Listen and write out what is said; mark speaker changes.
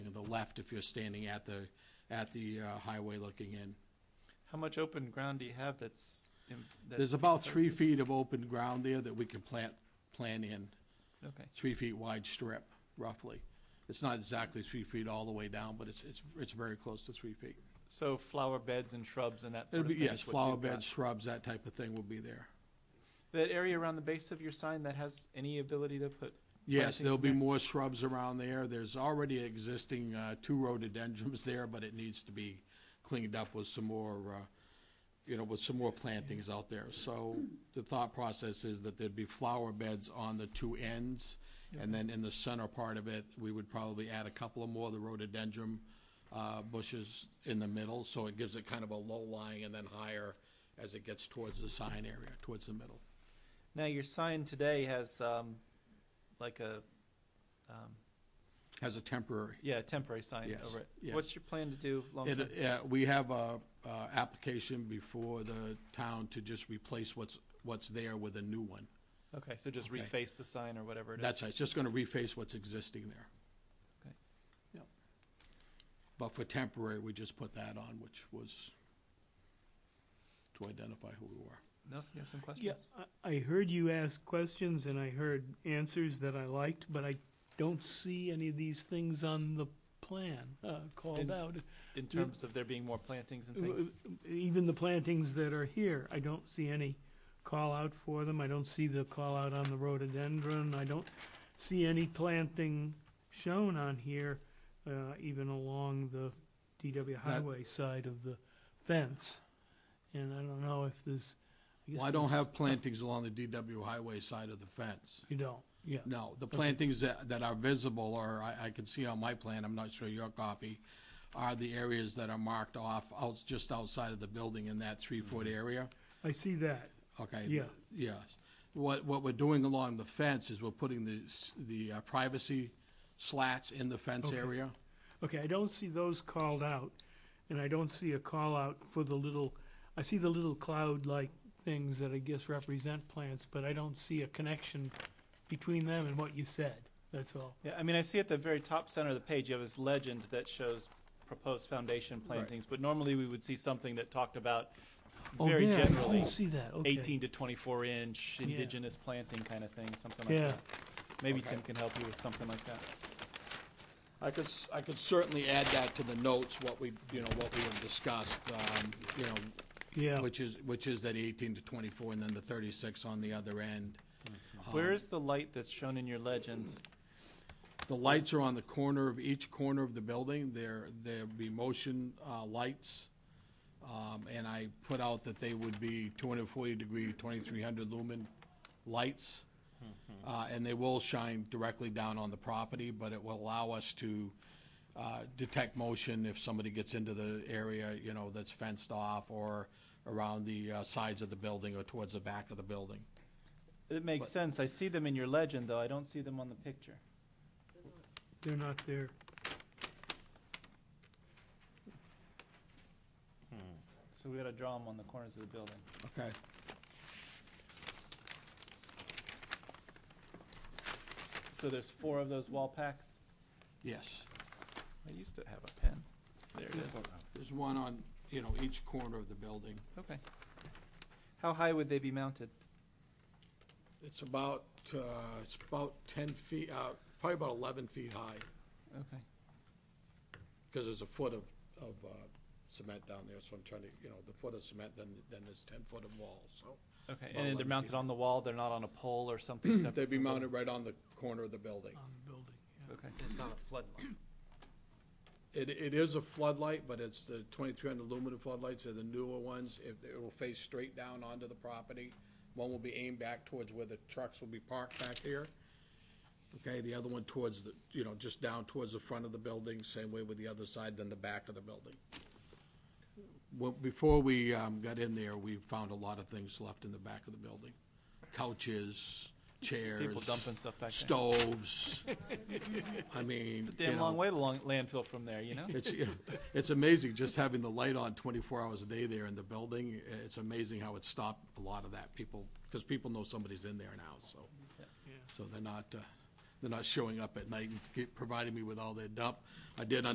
Speaker 1: left if you're standing at the, at the uh, highway looking in.
Speaker 2: How much open ground do you have that's? in- that's
Speaker 1: There's about
Speaker 2: conserved?
Speaker 1: three feet of open ground there that we can plant, plan in,
Speaker 2: Okay,
Speaker 1: three feet wide strip, roughly. It's not exactly three feet all the way down, but it's, it's, it's very close to three feet.
Speaker 2: so flower beds and shrubs and that sort
Speaker 1: It'll
Speaker 2: of
Speaker 1: be,
Speaker 2: thing?
Speaker 1: yes,
Speaker 2: is what
Speaker 1: flower
Speaker 2: you've got.
Speaker 1: beds, shrubs, that type of thing will be there.
Speaker 2: That area around the base of your sign that has any ability to put?
Speaker 1: Yes,
Speaker 2: plantings
Speaker 1: there'll
Speaker 2: in
Speaker 1: be
Speaker 2: there?
Speaker 1: more shrubs around there. There's already existing uh, two rhododendrons there, but it needs to be cleaned up with some more, uh, you know, with some more plantings out there. So the thought process is that there'd be flower beds on the two ends, and then in the center part of it, we would probably add a couple of more of the rhododendron uh, bushes in the middle, so it gives it kind of a low lying and then higher as it gets towards the sign area, towards the middle.
Speaker 2: Now, your sign today has, um, like a, um,
Speaker 1: Has a temporary
Speaker 2: yeah, a temporary sign
Speaker 1: Yes,
Speaker 2: over it.
Speaker 1: yes.
Speaker 2: What's your plan to do long term?
Speaker 1: It, uh, we have a, uh, application before the town to just replace what's, what's there with a new one.
Speaker 2: Okay, so just
Speaker 1: okay.
Speaker 2: reface the sign or whatever it is?
Speaker 1: That's right, it's just gonna reface what's existing there.
Speaker 2: Okay.
Speaker 1: Yep. But for temporary, we just put that on, which was to identify who we were.
Speaker 2: Nelson, you have some
Speaker 3: Yeah,
Speaker 2: questions?
Speaker 3: I I heard you ask questions and I heard answers that I liked, but I don't see any of these things on the plan uh, called
Speaker 2: Didn't-
Speaker 3: out. Uh,
Speaker 2: In terms of there being more plantings
Speaker 1: Uh,
Speaker 2: and things?
Speaker 3: Even the plantings that are here, I don't see any call out for them. I don't see the call out on the rhododendron. I don't see any planting shown on here, uh, even along the DW highway side of the fence. And I don't know if there's. guess
Speaker 1: Well, I don't
Speaker 3: there's-
Speaker 1: have plantings along the DW highway side of the fence.
Speaker 3: You don't, yeah.
Speaker 1: No, the plantings that, that are visible, or I, I can see on my plan, I'm not sure your copy, are the areas that are marked off out, just outside of the building in that three-foot area.
Speaker 3: I see that.
Speaker 1: Okay.
Speaker 3: Mm-hmm. Yeah.
Speaker 1: Yeah. What, what we're doing along the fence is we're putting the, s- the uh, privacy slats in the fence
Speaker 3: Okay.
Speaker 1: area.
Speaker 3: Okay, I don't see those called out, and I don't see a call out for the little, I see the little cloud-like things that I guess represent plants, but I don't see a connection between them and what you said, that's all.
Speaker 2: Yeah, I mean, I see at the very top center of the page, you have this legend that shows proposed foundation plantings, but normally we would see something that talked about very
Speaker 3: Oh, there, I
Speaker 2: generally
Speaker 3: couldn't see that, okay.
Speaker 2: eighteen to twenty-four inch
Speaker 3: Yeah.
Speaker 2: indigenous planting kind of thing, something like
Speaker 3: Yeah,
Speaker 2: that. Maybe
Speaker 1: Okay.
Speaker 2: Tim can help you with something like that.
Speaker 1: I could, s- I could certainly add that to the notes, what we, you know, what we have discussed, um, you know,
Speaker 3: yeah.
Speaker 1: which is, which is that eighteen to twenty-four and then the thirty-six on the other end.
Speaker 3: Uh-huh.
Speaker 2: Where is the light that's shown in your legend?
Speaker 1: The lights are on the corner of each corner of the building. There, there'll be motion uh, lights. Um, And I put out that they would be 240-degree, 2,300 lumen lights. Uh, And they will shine directly down on the property, but it will allow us to uh, detect motion if somebody gets into the area, you know, that's fenced off or around the uh, sides of the building or towards the back of the building.
Speaker 2: It makes sense. I see them in your legend, though. I don't see them on the picture.
Speaker 3: They're not there.
Speaker 2: So we gotta draw them on the corners of the building.
Speaker 1: Okay.
Speaker 2: So there's four of those wall packs.
Speaker 1: Yes.
Speaker 2: I used to have a pen. There it is.
Speaker 1: There's one on, you know, each corner of the building.
Speaker 2: Okay. How high would they be mounted?
Speaker 1: It's about, uh, it's about ten feet, uh, probably about eleven feet high,
Speaker 2: Okay.
Speaker 1: because there's a foot of, of, uh, cement down there, so I'm trying to, you know, the foot of cement, then, then there's ten foot of wall, so.
Speaker 2: Okay,
Speaker 1: About
Speaker 2: and then
Speaker 1: 11
Speaker 2: they're
Speaker 1: feet
Speaker 2: mounted
Speaker 1: high.
Speaker 2: on the wall, they're not on a pole or something separate?
Speaker 1: They'd be
Speaker 2: from the-
Speaker 1: mounted right on the corner of the building.
Speaker 3: On the building, yeah.
Speaker 2: Okay,
Speaker 4: It's not a floodlight.
Speaker 1: It, it is a floodlight, but it's the twenty-three hundred aluminum floodlights, they're the newer ones, it, it will face straight down onto the property. One will be aimed back towards where the trucks will be parked back here. Okay, the other one towards the, you know, just down towards the front of the building, same way with the other side than the back of the building. Well, before we, um, got in there, we found a lot of things left in the back of the building. Couches, chairs.
Speaker 2: people dumping stuff back there.
Speaker 1: Stoves. I mean.
Speaker 2: It's a
Speaker 1: you
Speaker 2: damn
Speaker 1: know,
Speaker 2: long way to long- landfill from there, you know?
Speaker 1: it's, it's amazing just having the light on twenty-four hours a day there in the building. It's amazing how it stopped a lot of that people, because people know somebody's in there now, so.
Speaker 3: Yeah.
Speaker 1: So they're not, uh, they're not showing up at night and get- providing me with all their dump. I did